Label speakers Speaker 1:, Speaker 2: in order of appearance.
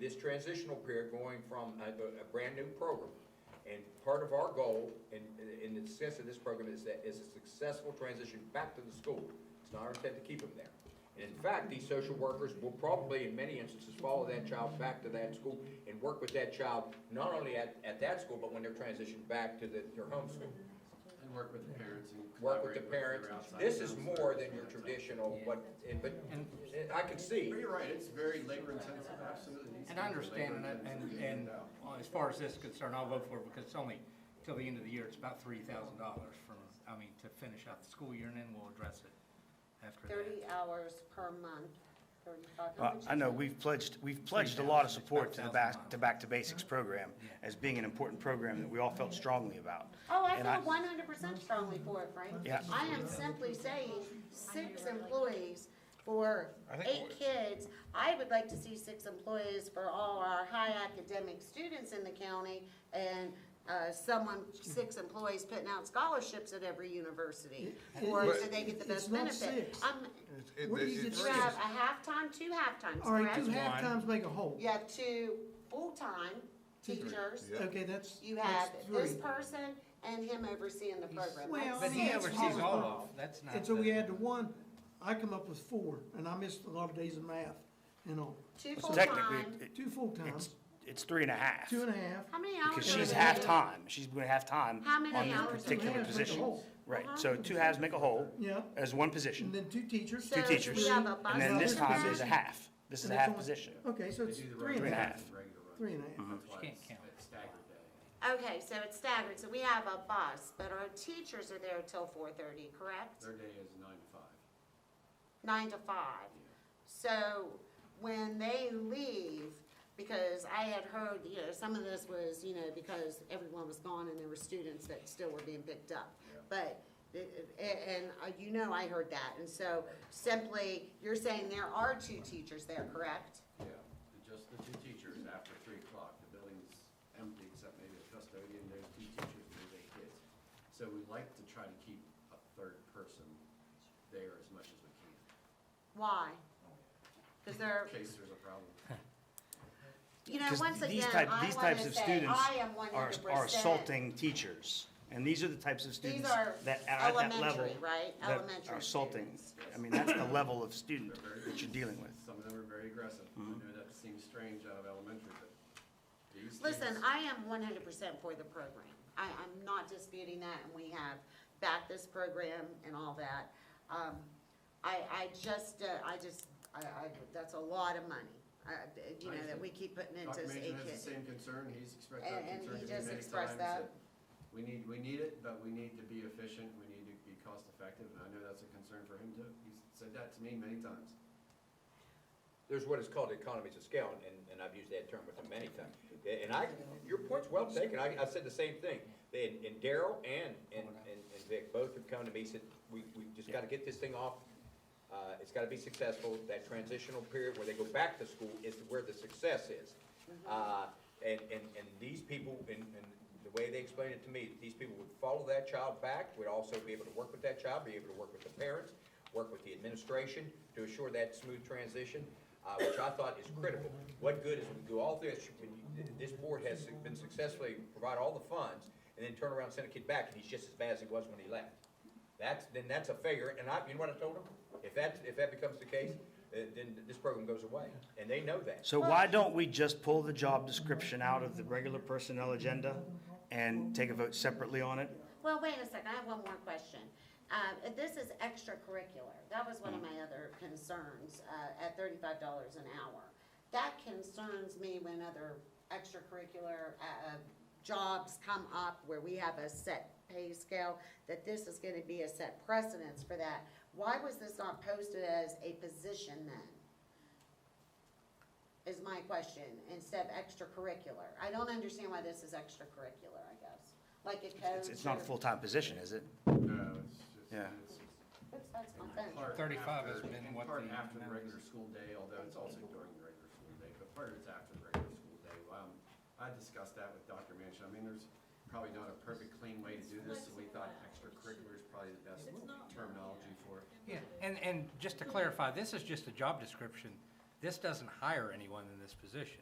Speaker 1: this transitional period going from a, a- a brand-new program. And part of our goal, in, in the sense of this program, is that, is a successful transition back to the school. It's not our intent to keep them there. And in fact, these social workers will probably, in many instances, follow that child back to that school and work with that child, not only at, at that school, but when they're transitioned back to the, their home school
Speaker 2: And work with the parents and
Speaker 1: work with
Speaker 2: collaborate
Speaker 1: the
Speaker 2: with
Speaker 1: parents.
Speaker 2: their outside
Speaker 1: This is
Speaker 2: counselors
Speaker 1: more than
Speaker 2: and
Speaker 1: your
Speaker 2: that type of-
Speaker 1: traditional, what, and- but, and I can
Speaker 2: But
Speaker 1: see,
Speaker 2: you're right, it's very labor intensive, absolutely. These
Speaker 3: And I
Speaker 2: things are
Speaker 3: understand, and,
Speaker 2: labor-intensive
Speaker 3: and,
Speaker 2: to
Speaker 3: and
Speaker 2: hand out.
Speaker 3: well, as far as this is concerned, I'll vote for it because it's only till the end of the year, it's about three thousand dollars from, I mean, to finish out the school year and then we'll address it after that.
Speaker 4: Thirty hours per month, thirty-five. How
Speaker 5: Well,
Speaker 4: much
Speaker 5: Uh, I
Speaker 4: is
Speaker 5: know,
Speaker 4: that?
Speaker 5: we've pledged, we've pledged a lot of support to the
Speaker 3: It's
Speaker 5: Back,
Speaker 3: about
Speaker 5: to Back to Basics program
Speaker 3: Yeah.
Speaker 5: as being an important program that we all felt strongly about.
Speaker 4: Oh, I
Speaker 5: And I-
Speaker 4: feel one hundred percent strongly for it, Frank.
Speaker 5: Yeah.
Speaker 4: I am simply saying, six employees for eight kids. I would like to see six employees for all our high academic students in the county and, uh, someone, six employees putting out scholarships at every university. Or so they get the best
Speaker 6: It's not
Speaker 4: benefit.
Speaker 6: six.
Speaker 4: Um,
Speaker 7: It's- it-
Speaker 6: Where do you
Speaker 7: it's-
Speaker 4: you
Speaker 6: Six.
Speaker 4: have a half-time, two half-times,
Speaker 6: All right, two
Speaker 4: correct?
Speaker 6: half times make a whole.
Speaker 4: You have two full-time teachers.
Speaker 7: Yeah.
Speaker 6: Okay, that's,
Speaker 4: You have
Speaker 6: that's
Speaker 4: this
Speaker 6: three.
Speaker 4: person and him overseeing the program.
Speaker 6: Well,
Speaker 4: That's
Speaker 3: But he
Speaker 4: six.
Speaker 3: oversees all of, that's not.
Speaker 6: And so we
Speaker 3: the-
Speaker 6: add to one, I come up with four, and I missed a lot of days of math and all.
Speaker 4: Two
Speaker 5: So technically,
Speaker 4: full-time.
Speaker 5: it- it-
Speaker 6: Two full
Speaker 5: it's,
Speaker 6: times,
Speaker 5: it's three and a half,
Speaker 6: two and a half.
Speaker 4: How many hours?
Speaker 5: because
Speaker 4: are
Speaker 5: she's
Speaker 4: they?
Speaker 5: half-time, she's been half-time
Speaker 4: How many
Speaker 5: on
Speaker 4: hours
Speaker 5: this
Speaker 4: a
Speaker 5: particular
Speaker 6: half?
Speaker 5: position.
Speaker 4: Uh-huh.
Speaker 5: Right, so two halves make a whole,
Speaker 6: Yeah.
Speaker 5: as one
Speaker 6: And
Speaker 5: position,
Speaker 6: then two teachers.
Speaker 4: So
Speaker 5: two
Speaker 4: we
Speaker 5: teachers,
Speaker 4: have a
Speaker 5: and then this
Speaker 4: bus
Speaker 5: time is a
Speaker 4: position.
Speaker 5: half, this is a
Speaker 6: And it's
Speaker 5: half
Speaker 6: only-
Speaker 5: position.
Speaker 6: Okay, so
Speaker 2: They
Speaker 6: it's
Speaker 2: do the
Speaker 6: three and a
Speaker 2: regular
Speaker 6: half,
Speaker 5: half.
Speaker 2: runs, regular runs.
Speaker 6: three and a
Speaker 5: Mm-hmm.
Speaker 6: half.
Speaker 2: That's why
Speaker 3: can't
Speaker 2: it's-
Speaker 3: count.
Speaker 2: it's staggered day.
Speaker 4: Okay, so it's staggered, so we have a bus, but our teachers are there till four thirty, correct?
Speaker 2: Their day is nine to five.
Speaker 4: Nine to five. So when they leave, because I had heard, you know, some of this was, you know, because everyone was gone and there were students that still were being picked up. But, it- it- and uh, you know I heard that, and so simply, you're saying there are two teachers there, correct?
Speaker 2: Yeah, and just the two teachers after three o'clock, the building's empty except maybe the custodian, there's two teachers, there's eight kids. So we like to try to keep a third person there as much as we can,
Speaker 4: Why? Because they're,
Speaker 2: in case there's a problem.
Speaker 4: you know,
Speaker 5: 'Cause
Speaker 4: once
Speaker 5: these
Speaker 4: again,
Speaker 5: type-
Speaker 4: I
Speaker 5: these
Speaker 4: want
Speaker 5: types
Speaker 4: to
Speaker 5: of
Speaker 4: say,
Speaker 5: students
Speaker 4: I am one
Speaker 5: are-
Speaker 4: hundred percent.
Speaker 5: Are assaulting teachers, and these are the types of students
Speaker 4: are
Speaker 5: that are at that level.
Speaker 4: elementary, right?
Speaker 5: that
Speaker 4: Elementary
Speaker 5: Are assaulting,
Speaker 4: students.
Speaker 5: I mean, that's the level of student that you're dealing with.
Speaker 2: Some of them are very aggressive. I
Speaker 1: Mm-hmm.
Speaker 2: know that seems strange out of elementary, but these kids.
Speaker 4: Listen, I am one hundred percent for the program. I, I'm not disputing that, and we have backed this program and all that. Um, I, I just, uh, I just, I, I, that's a lot of money, uh, you know, that we keep putting into
Speaker 2: Dr.
Speaker 4: this
Speaker 2: Mason
Speaker 4: eight
Speaker 2: has the
Speaker 4: kids.
Speaker 2: same concern, he's expressed
Speaker 4: And-
Speaker 2: that
Speaker 4: and
Speaker 2: concern
Speaker 4: he
Speaker 2: to me
Speaker 4: just
Speaker 2: many
Speaker 4: expressed
Speaker 2: times,
Speaker 4: that.
Speaker 2: that we need, we need it, but we need to be efficient, we need to be cost effective, and I know that's a concern for him too. He's said that to me many times.
Speaker 1: there's what is called economies of scale, and, and I've used that term with them many times. And I, your point's well taken, I, I said the same thing. And, and Daryl and, and, and and Vic both have come to me, said, we, we just gotta get this thing off. Uh, it's gotta be successful, that transitional period where they go back to school is where the success is. Uh, and, and, and these people, and, and the way they explained it to me, these people would follow that child back, would also be able to work with that child, be able to work with the parents, work with the administration to assure that smooth transition, uh, which I thought is critical. What good is we do all this, when you- this board has been successfully provide all the funds, and then turn around and send a kid back, and he's just as bad as he was when he left. That's, then that's a failure, and I, you know what I told them? If that, if that becomes the case, uh, then this program goes away, and they know that.
Speaker 5: So why don't we just pull the job description out of the regular personnel agenda and take a vote separately on it?
Speaker 4: Well, wait a second, I have one more question. Uh, this is extracurricular, that was one of
Speaker 5: Mm.
Speaker 4: my other concerns, uh, at thirty-five dollars an hour. That concerns me when other extracurricular, uh, uh, jobs come up where we have a set pay scale, that this is gonna be a set precedence for that. Why was this not posted as a position then? Is my question, instead of extracurricular. I don't understand why this is extracurricular, I guess, like a coach
Speaker 5: It's, it's not a
Speaker 4: or-
Speaker 5: full-time position, is it?
Speaker 2: No, Uh, it's just,
Speaker 5: Yeah.
Speaker 2: it's
Speaker 4: Oops, that's my phone.
Speaker 2: part
Speaker 3: 35
Speaker 2: after-
Speaker 3: has been what
Speaker 2: Part
Speaker 3: the-
Speaker 2: after the regular school day, although it's also during the regular school day, but part of it's after the regular school day. Um, I discussed that with Dr. Manchin. I mean, there's probably not a perfect clean way to do this, so we thought extracurricular is probably the best terminology for it.
Speaker 3: Yeah, and, and just to clarify, this is just a job description. This doesn't hire anyone in this position.